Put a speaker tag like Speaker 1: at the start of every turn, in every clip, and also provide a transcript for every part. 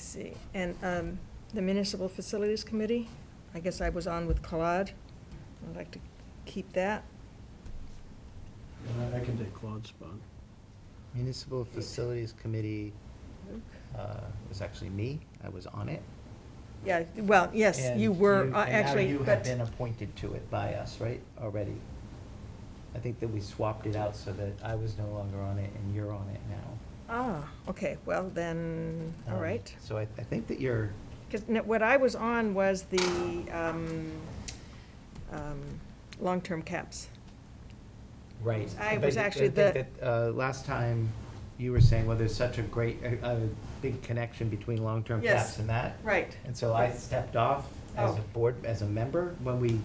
Speaker 1: see, and um, the Municipal Facilities Committee, I guess I was on with Claude. I'd like to keep that.
Speaker 2: And I- I can take Claude's spot.
Speaker 3: Municipal Facilities Committee uh, was actually me, I was on it.
Speaker 1: Yeah, well, yes,
Speaker 3: And
Speaker 1: you were,
Speaker 3: you-
Speaker 1: uh,
Speaker 3: and now
Speaker 1: actually,
Speaker 3: you have
Speaker 1: but,
Speaker 3: been appointed to it by us, right, already? I think that we swapped it out so that I was no longer on it and you're on it now.
Speaker 1: ah, okay, well, then, all
Speaker 3: Um,
Speaker 1: right.
Speaker 3: So I, I think that you're,
Speaker 1: Because what I was on was the um, um, long-term caps.
Speaker 3: right.
Speaker 1: I
Speaker 3: but
Speaker 1: was actually
Speaker 3: think
Speaker 1: the-
Speaker 3: that, uh, Last time, you were saying, well, there's such a great, a, a big connection between long-term
Speaker 1: Yes.
Speaker 3: caps and that.
Speaker 1: Right.
Speaker 3: And so I stepped off as a
Speaker 1: Oh.
Speaker 3: board, as a member, when we,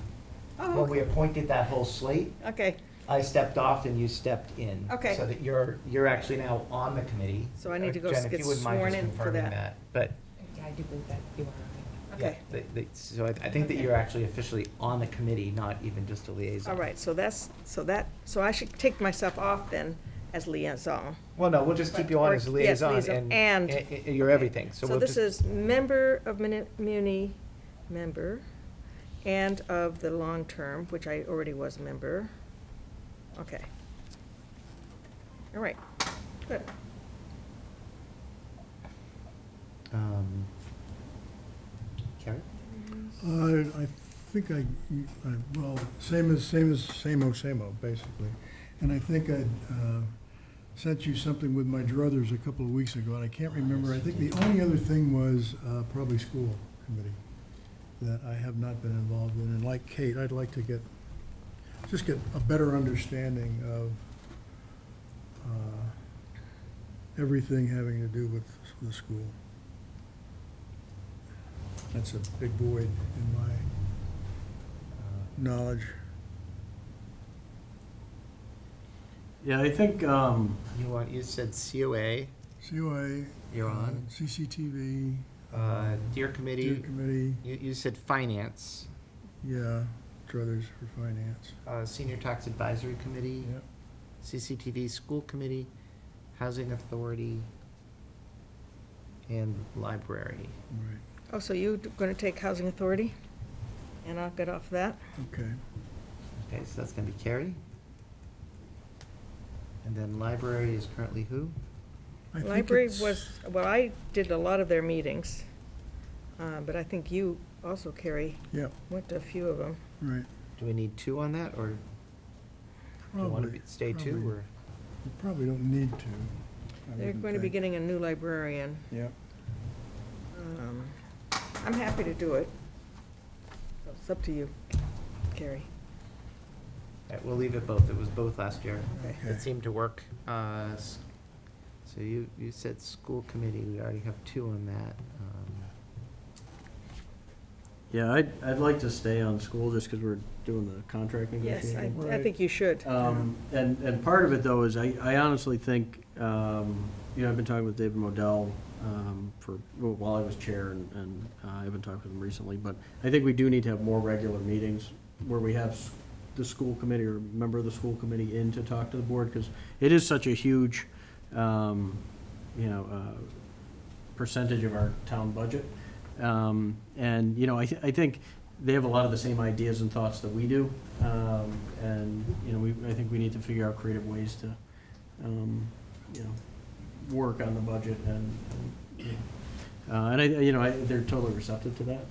Speaker 1: Oh,
Speaker 3: when we
Speaker 1: okay.
Speaker 3: appointed that whole slate.
Speaker 1: Okay,
Speaker 3: I stepped off and you stepped in.
Speaker 1: Okay.
Speaker 3: So that you're, you're actually now on the committee.
Speaker 1: So I need to go
Speaker 3: Jen, if
Speaker 1: get
Speaker 3: you wouldn't mind
Speaker 1: sworn
Speaker 3: just
Speaker 1: in for
Speaker 3: confirming
Speaker 1: that.
Speaker 3: But,
Speaker 4: Yeah, I do believe that you are.
Speaker 3: yeah,
Speaker 1: Okay.
Speaker 3: that- that- so I, I think that
Speaker 1: Okay.
Speaker 3: you're actually officially on the committee, not even just a liaison.
Speaker 1: all right, so that's, so that, so I should take myself off then as liaison.
Speaker 3: Well, no, we'll just keep you on
Speaker 1: Or-
Speaker 3: as a
Speaker 1: yes,
Speaker 3: liaison
Speaker 1: liaison,
Speaker 3: and.
Speaker 1: and-
Speaker 3: and- and You're everything, so
Speaker 1: So
Speaker 3: we'll
Speaker 1: this
Speaker 3: just.
Speaker 1: is member of muni- Muni, member, and of the long-term, which I already was a member. Okay. All right, good.
Speaker 3: um, Carrie?
Speaker 5: Uh, I think I, I- well, same as, same as, same old, same old, basically. And I think I uh, sent you something with my druthers a couple of weeks ago, and I can't remember. I think the only other thing was uh, probably school committee that I have not been involved in. And like Kate, I'd like to get, just get a better understanding of uh, everything having to do with the school. That's a big void in my
Speaker 3: Uh,
Speaker 5: knowledge.
Speaker 2: Yeah, I think, um,
Speaker 3: You want, you said COA,
Speaker 5: COA.
Speaker 3: you're
Speaker 5: uh,
Speaker 3: on.
Speaker 5: CCTV.
Speaker 3: Uh, Dear
Speaker 5: Deer
Speaker 3: Committee,
Speaker 5: Committee,
Speaker 3: you, you said finance,
Speaker 5: yeah, Druthers for Finance.
Speaker 3: uh, Senior Tax Advisory Committee.
Speaker 5: Yep.
Speaker 3: CCTV School Committee, Housing Authority, and Library.
Speaker 5: Right,
Speaker 1: Oh, so you're gonna take Housing Authority? And I'll get off that.
Speaker 5: okay.
Speaker 3: Okay, so that's gonna be Carrie. And then Library is currently who?
Speaker 5: I think
Speaker 1: Library
Speaker 5: it's-
Speaker 1: was, well, I did a lot of their meetings, uh, but I think you also, Carrie,
Speaker 5: Yep,
Speaker 1: went to a few of them.
Speaker 5: right.
Speaker 3: Do we need two on that, or do you wanna
Speaker 5: Probably-
Speaker 3: be- stay two,
Speaker 5: probably-
Speaker 3: or?
Speaker 5: You probably don't need to. I
Speaker 1: They're
Speaker 5: wouldn't
Speaker 1: going to be
Speaker 5: think.
Speaker 1: getting a new librarian.
Speaker 5: Yep.
Speaker 1: Um, I'm happy to do it. It's up to you, Carrie.
Speaker 3: Uh, We'll leave it both, it was both last year.
Speaker 1: Okay.
Speaker 5: Okay.
Speaker 3: It seemed to work. Uh, s- So you, you said School Committee, we already have two on that. Um,
Speaker 2: yeah, I'd, I'd like to stay on school just because we're doing the contract
Speaker 1: Yes, I,
Speaker 2: negotiation.
Speaker 1: I think you should.
Speaker 2: Um, and, and part of it though is I, I honestly think, um, you know, I've been talking with David Modell, um, for, well, while I was chair and, and uh, I haven't talked with him recently, but I think we do need to have more regular meetings where we have s- the school committee or a member of the school committee in to talk to the board, because it is such a huge, um, you know, uh, percentage of our town budget. Um, and, you know, I, th- I think they have a lot of the same ideas and thoughts that we do. Um, and, you know, we, I think we need to figure out creative ways to, um, you know, work on the budget and, and, you know. uh, and I, you know, I, they're totally receptive to that.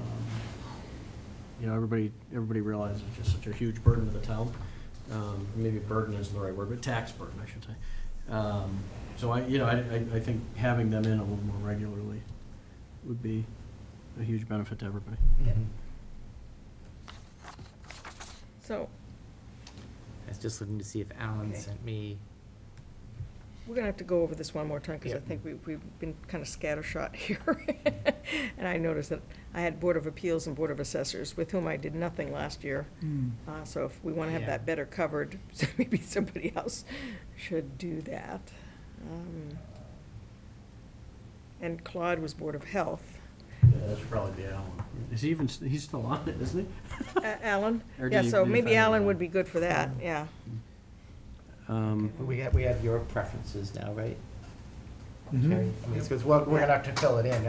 Speaker 2: Um, You know, everybody, everybody realizes it's just such a huge burden to the town. Um, maybe burden isn't the right word, but tax burden, I should say. Um, so I, you know, I, I, I think having them in a little more regularly would be a huge benefit to everybody.
Speaker 3: mhm.
Speaker 1: So,
Speaker 3: I was just looking to see if Alan
Speaker 1: Okay.
Speaker 3: sent me.
Speaker 1: we're gonna have to go over this one more time, because I
Speaker 3: Yep.
Speaker 1: think we, we've been kind of scattershot here. And I noticed that I had Board of Appeals and Board of Assessors, with whom I did nothing last year.
Speaker 5: Hmm.
Speaker 1: Uh, So if we want to have
Speaker 3: Yeah.
Speaker 1: that better covered, so maybe somebody else should do that. Um, And Claude was Board of Health.
Speaker 2: Yeah, that should probably be Alan. Is he even, st- he's still on it, isn't
Speaker 1: A- Alan?
Speaker 2: Or do
Speaker 1: Yeah,
Speaker 2: you-
Speaker 1: so
Speaker 2: do you
Speaker 1: maybe
Speaker 2: find
Speaker 1: Alan
Speaker 2: Alan?
Speaker 1: would be good for that, yeah.
Speaker 2: he? Um,
Speaker 3: We have, we have your preferences now, right?
Speaker 5: Mhm.
Speaker 3: Because we're, we're gonna have to fill it in